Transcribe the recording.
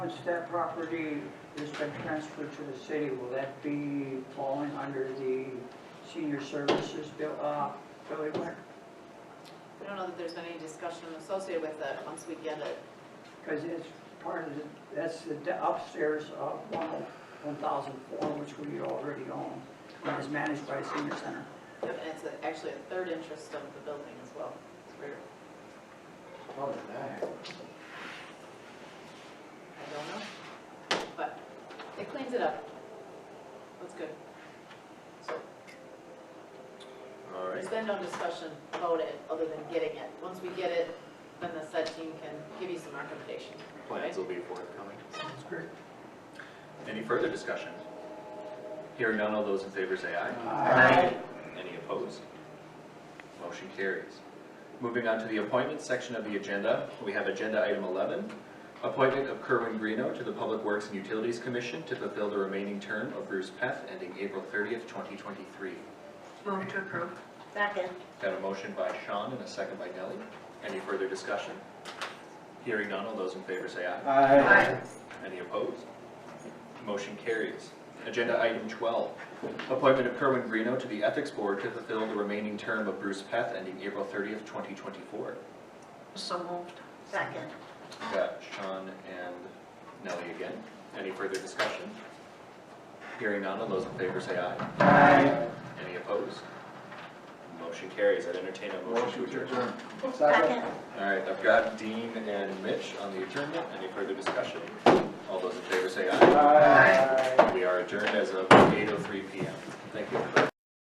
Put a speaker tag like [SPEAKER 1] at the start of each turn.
[SPEAKER 1] Once that property has been transferred to the city, will that be falling under the senior services bill, uh, Billy Ware?
[SPEAKER 2] We don't know that there's been any discussion associated with it once we get it.
[SPEAKER 1] Because it's part of the, that's the d- upstairs of one, oh, one thousand four, which we already own, and is managed by senior center.
[SPEAKER 2] And it's a- actually a third interest of the building as well. It's weird.
[SPEAKER 3] How did that happen?
[SPEAKER 2] I don't know. But it cleans it up. That's good.
[SPEAKER 3] All right,
[SPEAKER 2] There's been no discussion about it other than getting it. Once we get it, then the set team can give you some recommendations.
[SPEAKER 4] Plans will be forthcoming. Sounds great. Any further discussion? Hearing none, all those in favor say aye. Any opposed? Motion carries. Moving on to the appointments section of the agenda, we have agenda item 11, appointment of Kerwin Greeno to the Public Works and Utilities Commission to fulfill the remaining term of Bruce Peth ending April 30th, 2023.
[SPEAKER 5] Move to approve.
[SPEAKER 6] Second.
[SPEAKER 4] Got a motion by Sean and a second by Nellie. Any further discussion? Hearing none, all those in favor say aye.
[SPEAKER 3] Aye.
[SPEAKER 4] Any opposed? Motion carries. Agenda item 12, appointment of Kerwin Greeno to the Ethics Board to fulfill the remaining term of Bruce Peth ending April 30th, 2024.
[SPEAKER 5] So moved.
[SPEAKER 6] Second.
[SPEAKER 4] Got Sean and Nellie again. Any further discussion? Hearing none, all those in favor say aye.
[SPEAKER 3] Aye.
[SPEAKER 4] Any opposed? Motion carries. I'd entertain a motion to adjourn.
[SPEAKER 6] Second.
[SPEAKER 4] All right, I've got Dean and Mitch on the adjournment. Any further discussion? All those in favor say aye.
[SPEAKER 3] Aye.
[SPEAKER 4] oh We are adjourned as of 8:03 PM. Thank you, everybody.